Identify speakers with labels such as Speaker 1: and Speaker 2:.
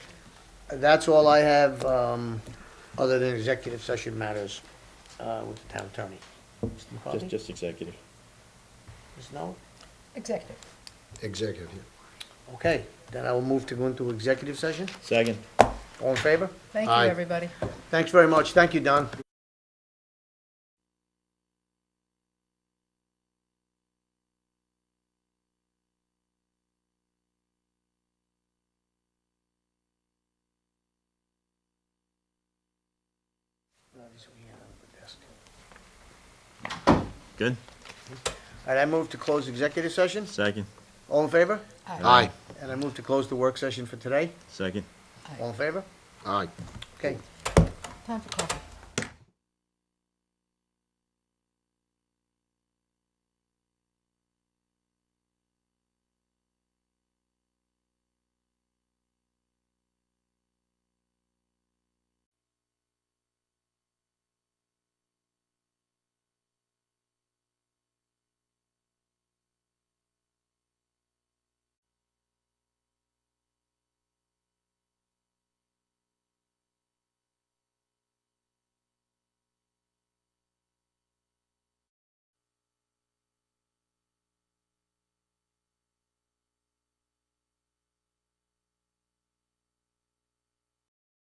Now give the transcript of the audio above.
Speaker 1: that's all I have, um, other than executive session matters, uh, with the town attorney. Mr.
Speaker 2: Just,
Speaker 1: McCarthy?
Speaker 2: just executive.
Speaker 1: Ms. Nolan?
Speaker 3: Executive.
Speaker 4: Executive, yeah.
Speaker 1: Okay, then I will move to go into executive session.
Speaker 2: Second.
Speaker 1: All in favor?
Speaker 3: Thank you,
Speaker 4: Aye.
Speaker 3: everybody.
Speaker 1: Thanks very much. Thank you, Don.
Speaker 2: Good.
Speaker 1: All right, I move to close executive session.
Speaker 2: Second.
Speaker 1: All in favor?
Speaker 4: Aye,
Speaker 1: And I move to close the work session for today.
Speaker 2: Second.
Speaker 1: All in favor?
Speaker 4: aye.
Speaker 1: Okay.
Speaker 3: Time for coffee.